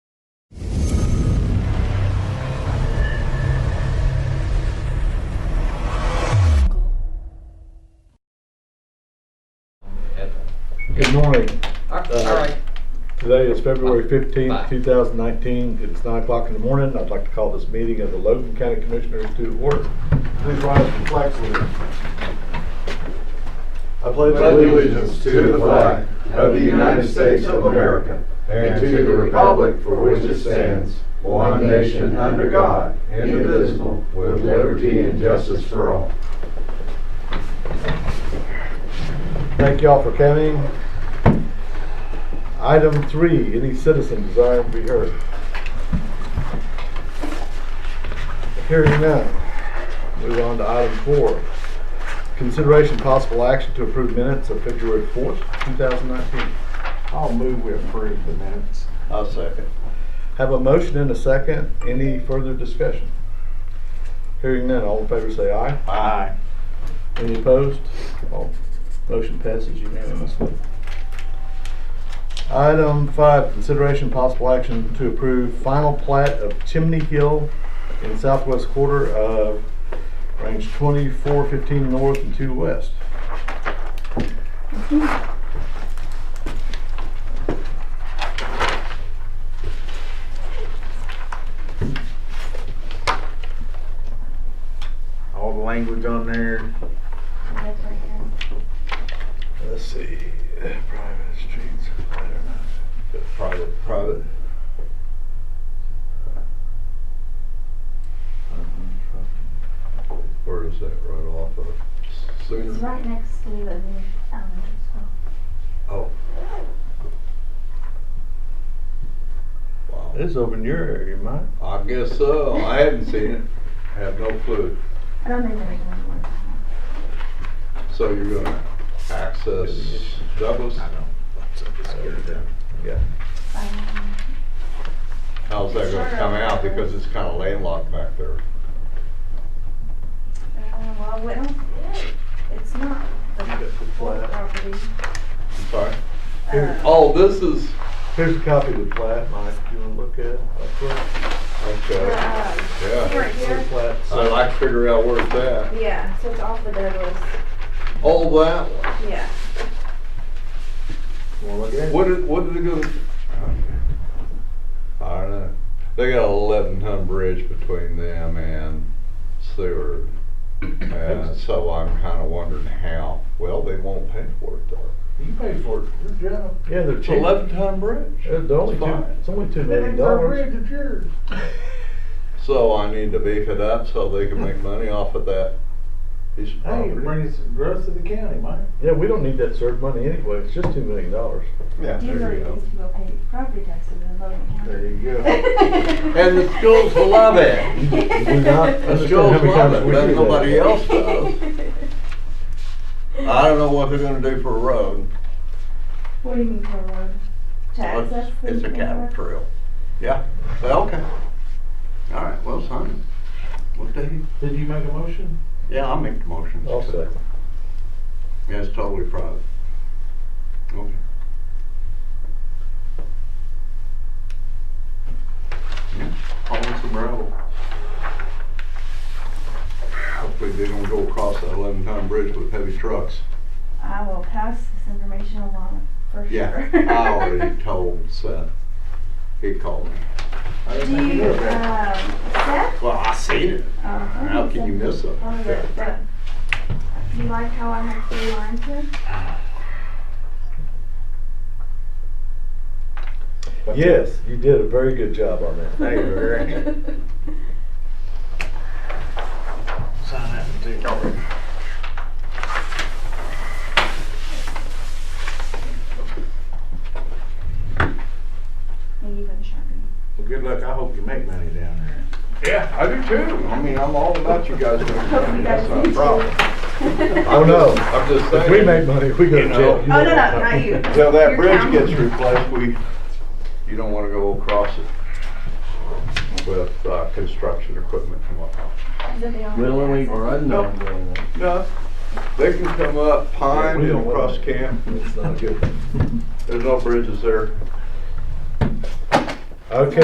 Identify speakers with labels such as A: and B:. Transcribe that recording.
A: Good morning.
B: All right,
A: Today is February
B: Bye.
A: fifteenth, two thousand nineteen. It is nine o'clock in the morning. I'd like to call this meeting of the Logan County Commissioners to order. Please rise for the flag salute. I pledge
C: allegiance to the flag of the United States of America and to the republic for which it stands, one nation under God, indivisible, with liberty and justice for all.
A: Thank y'all for coming. Item three, any citizen desiring to be heard? Hearing none. Move on to item four. Consideration possible action to approve minutes of February fourth, two thousand nineteen. I'll move we approve the minutes. I'll second. Have a motion and a second. Any further discussion? Hearing none. All in favor say aye. Aye. Any opposed? All Motion passes unanimously. Item five, consideration possible action to approve final plat of Chimney Hill in southwest quarter of range twenty-four fifteen north and two west.
D: all the language on there.
A: Let's see, private streets, I don't know. Private, private.
C: Where is that right off of?
E: It's
C: Sooner?
E: right next to the elementary school.
C: Oh. Wow.
A: It's over in your area, Mike.
C: I guess so. Oh, I hadn't seen it. Have no clue.
E: I don't think there's one more.
C: So you're gonna access Douglas?
A: Yeah.
E: Um,
C: How's that gonna come out? Because it's kinda landlocked back there.
E: uh, Well, we don't, it's not the full property.
C: I'm sorry.
A: Here.
E: Uh,
C: Oh, this is,
A: Here's a copy of the plat, Mike, if you wanna look at it. Up
C: okay,
E: we're, uh,
C: yeah.
E: Right
A: front.
E: here,
A: The plat, so-
C: I'd like to figure out where it's at.
E: yeah, so it's off the Douglas,
C: Oh, that one.
E: yeah.
A: Wanna look at it?
C: What did, what did it go? okay. I don't know. They got a eleven ton bridge between them and Seward. And so I'm kinda wondering how, well, they won't pay for it though.
A: You pay for it, your job. Yeah, they're
C: It's
A: cheap.
C: eleven ton bridge.
A: It's Uh, only two,
C: fine.
A: it's only two million dollars.
C: So I need to beef it up so they can make money off of that piece of
D: Hey,
C: property.
D: it brings growth to the county, Mike.
A: Yeah, we don't need that CERT money anyway, it's just two million dollars.
C: Yeah, there
E: Usually
C: you go.
E: these people pay property taxes in Logan County.
D: There you go.
C: And the schools will love it.
A: do not
C: The
A: understand how
C: schools
A: many
C: love
A: times
C: it,
A: we
C: but
A: do that.
C: nobody else does. I don't know what they're gonna do for a road.
E: What do you mean for a road? To access
C: It's
E: the
C: it's a cattle
E: network?
C: trail. Yeah, well, okay. All right, well, sign it. What the heck?
D: Did you make a motion?
C: Yeah, I'll make the motion.
A: I'll second.
C: Yeah, it's totally private. Okay. Yeah, Calling some gravel. Hopefully they don't go across that eleven ton bridge with heavy trucks.
E: I will pass this information along for sure.
C: Yeah, I already told Seth. He called me.
D: I
E: Do
D: didn't think
E: you,
D: knew
E: um,
D: about
E: Seth?
C: Well, I seen it.
E: Uh,
C: How can you miss it?
E: Oh, the, the, you like how I have three lines here?
D: it.
A: Yes, you did a very good job on that.
D: Hey, Rick. Sign that one too.
E: And you can sharpen.
D: Well, good luck. I hope you make money down there.
C: Yeah, I do too. I mean, I'm all about you guys doing
E: Hope you
C: it.
E: guys
C: That's not
E: need
C: a
E: to.
C: problem.
A: Oh, no.
C: I'm just saying.
A: If we make money, we go
C: You
A: to
C: know.
A: jail.
C: Oh,
E: no, no, not you.
C: Till that
E: Your
C: bridge
E: town.
C: gets replaced, we, you don't wanna go across it with, uh, construction equipment and whatnot.
E: Is that the only
D: Willingly
E: answer?
D: or unknowingly.
C: No, they can come up
A: Yeah,
C: Pine
A: we
C: and
A: don't want
C: across
A: that.
C: Camp.
A: It's not good.
C: There's no bridges there.
A: Okay,